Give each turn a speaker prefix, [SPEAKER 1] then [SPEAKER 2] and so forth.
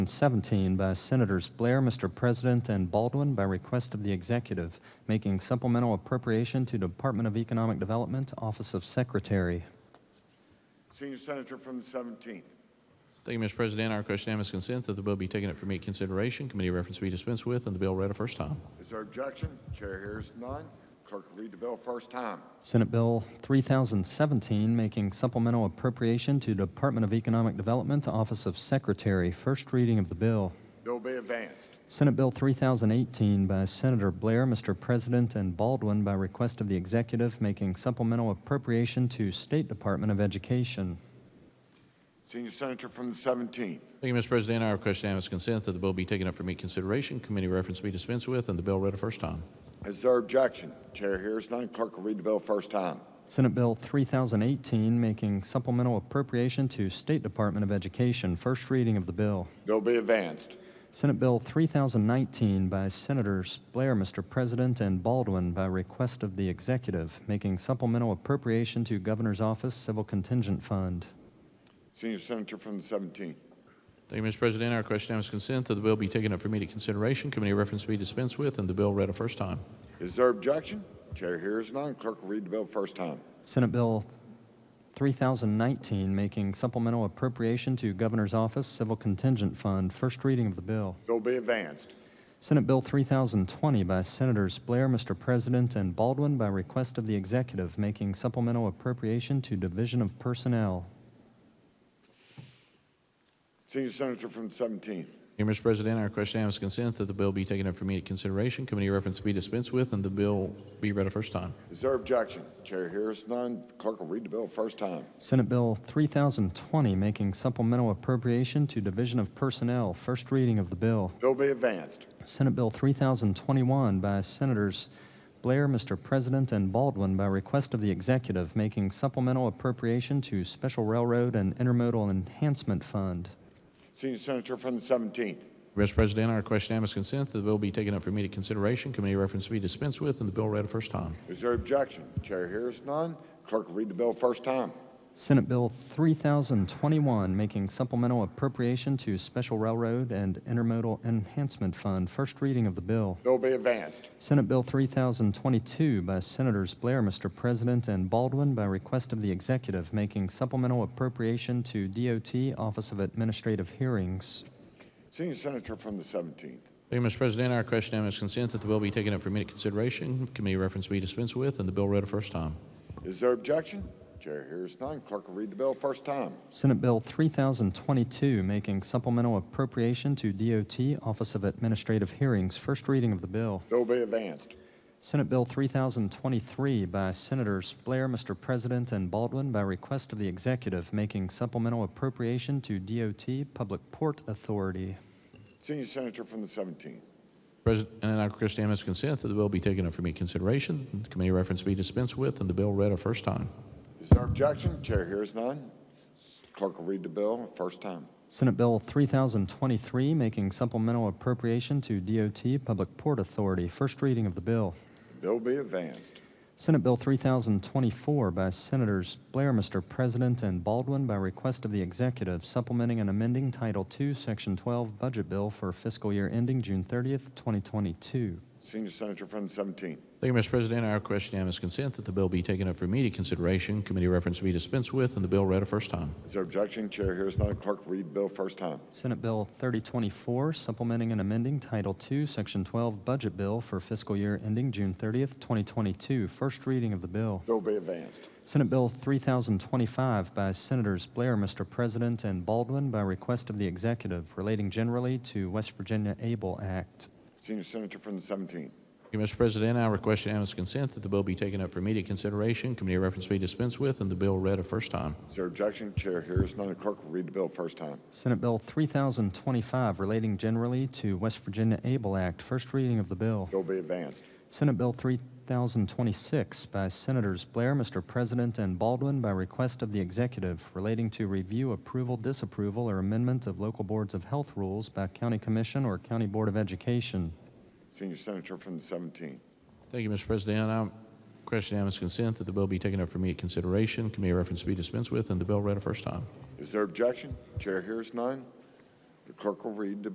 [SPEAKER 1] 17 by Senators Blair, Mr. President, and Baldwin by request of the executive, making supplemental appropriation to Department of Economic Development, Office of Secretary.
[SPEAKER 2] Senior Senator from the 17th.
[SPEAKER 3] Thank you, Mr. President. Our question unanimous consent that the bill be taken up for immediate consideration, committee reference be dispensed with, and the bill read a first time.
[SPEAKER 2] Is there objection? Chair hears none. Clerk will read the bill first time.
[SPEAKER 1] Senate Bill 3017, making supplemental appropriation to Department of Economic Development, Office of Secretary. First reading of the bill.
[SPEAKER 2] Bill be advanced.
[SPEAKER 1] Senate Bill 3018 by Senator Blair, Mr. President, and Baldwin by request of the executive, making supplemental appropriation to State Department of Education.
[SPEAKER 2] Senior Senator from the 17th.
[SPEAKER 3] Thank you, Mr. President. Our question unanimous consent that the bill be taken up for immediate consideration, committee reference be dispensed with, and the bill read a first time.
[SPEAKER 2] Is there objection? Chair hears none. Clerk will read the bill first time.
[SPEAKER 1] Senate Bill 3018, making supplemental appropriation to State Department of Education. First reading of the bill.
[SPEAKER 2] Bill be advanced.
[SPEAKER 1] Senate Bill 3019 by Senators Blair, Mr. President, and Baldwin by request of the executive, making supplemental appropriation to Governor's Office Civil Contingent Fund.
[SPEAKER 2] Senior Senator from the 17th.
[SPEAKER 3] Thank you, Mr. President. Our question unanimous consent that the bill be taken up for immediate consideration, committee reference be dispensed with, and the bill read a first time.
[SPEAKER 2] Is there objection? Chair hears none. Clerk will read the bill first time.
[SPEAKER 1] Senate Bill 3019, making supplemental appropriation to Governor's Office Civil Contingent Fund. First reading of the bill.
[SPEAKER 2] Bill be advanced.
[SPEAKER 1] Senate Bill 3020 by Senators Blair, Mr. President, and Baldwin by request of the executive, making supplemental appropriation to Division of Personnel.
[SPEAKER 2] Senior Senator from the 17th.
[SPEAKER 3] Thank you, Mr. President. Our question unanimous consent that the bill be taken up for immediate consideration, committee reference be dispensed with, and the bill be read a first time.
[SPEAKER 2] Is there objection? Chair hears none. Clerk will read the bill first time.
[SPEAKER 1] Senate Bill 3020, making supplemental appropriation to Division of Personnel. First reading of the bill.
[SPEAKER 2] Bill be advanced.
[SPEAKER 1] Senate Bill 3021 by Senators Blair, Mr. President, and Baldwin by request of the executive, making supplemental appropriation to Special Railroad and Intermodal Enhancement Fund.
[SPEAKER 2] Senior Senator from the 17th.
[SPEAKER 3] Mr. President, our question unanimous consent that the bill be taken up for immediate consideration, committee reference be dispensed with, and the bill read a first time.
[SPEAKER 2] Is there objection? Chair hears none. Clerk will read the bill first time.
[SPEAKER 1] Senate Bill 3021, making supplemental appropriation to Special Railroad and Intermodal Enhancement Fund. First reading of the bill.
[SPEAKER 2] Bill be advanced.
[SPEAKER 1] Senate Bill 3022 by Senators Blair, Mr. President, and Baldwin by request of the executive, making supplemental appropriation to DOT Office of Administrative Hearings.
[SPEAKER 2] Senior Senator from the 17th.
[SPEAKER 3] Thank you, Mr. President. Our question unanimous consent that the bill be taken up for immediate consideration, committee reference be dispensed with, and the bill read a first time.
[SPEAKER 2] Is there objection? Chair hears none. Clerk will read the bill first time.
[SPEAKER 1] Senate Bill 3022, making supplemental appropriation to DOT Office of Administrative Hearings. First reading of the bill.
[SPEAKER 2] Bill be advanced.
[SPEAKER 1] Senate Bill 3023 by Senators Blair, Mr. President, and Baldwin by request of the executive, making supplemental appropriation to DOT Public Port Authority.
[SPEAKER 2] Senior Senator from the 17th.
[SPEAKER 3] President, and our question unanimous consent that the bill be taken up for immediate consideration, committee reference be dispensed with, and the bill read a first time.
[SPEAKER 2] Is there objection? Chair hears none. Clerk will read the bill first time.
[SPEAKER 1] Senate Bill 3023, making supplemental appropriation to DOT Public Port Authority. First reading of the bill.
[SPEAKER 2] Bill be advanced.
[SPEAKER 1] Senate Bill 3024 by Senators Blair, Mr. President, and Baldwin by request of the executive, supplementing and amending Title II, Section 12 Budget Bill for fiscal year ending June 30th, 2022.
[SPEAKER 2] Senior Senator from the 17th.
[SPEAKER 3] Thank you, Mr. President. Our question unanimous consent that the bill be taken up for immediate consideration, committee reference be dispensed with, and the bill read a first time.
[SPEAKER 2] Is there objection? Chair hears none. Clerk will read the bill first time.
[SPEAKER 1] Senate Bill 3024, supplementing and amending Title II, Section 12 Budget Bill for fiscal year ending June 30th, 2022. First reading of the bill.
[SPEAKER 2] Bill be advanced.
[SPEAKER 1] Senate Bill 3025 by Senators Blair, Mr. President, and Baldwin by request of the executive relating generally to West Virginia Able Act.
[SPEAKER 2] Senior Senator from the 17th.
[SPEAKER 3] Thank you, Mr. President. I request unanimous consent that the bill be taken up for immediate consideration, committee reference be dispensed with, and the bill read a first time.
[SPEAKER 2] Is there objection? Chair hears none. Clerk will read the bill first time.
[SPEAKER 1] Senate Bill 3025 relating generally to West Virginia Able Act. First reading of the bill.
[SPEAKER 2] Bill be advanced.
[SPEAKER 1] Senate Bill 3026 by Senators Blair, Mr. President, and Baldwin by request of the executive relating to review, approval, disapproval, or amendment of local boards of health rules by county commission or county board of education.
[SPEAKER 2] Senior Senator from the 17th.
[SPEAKER 3] Thank you, Mr. President. I question unanimous consent that the bill be taken up for immediate consideration, committee reference be dispensed with, and the bill read a first time.
[SPEAKER 2] Is there objection? Chair hears none. The clerk will read the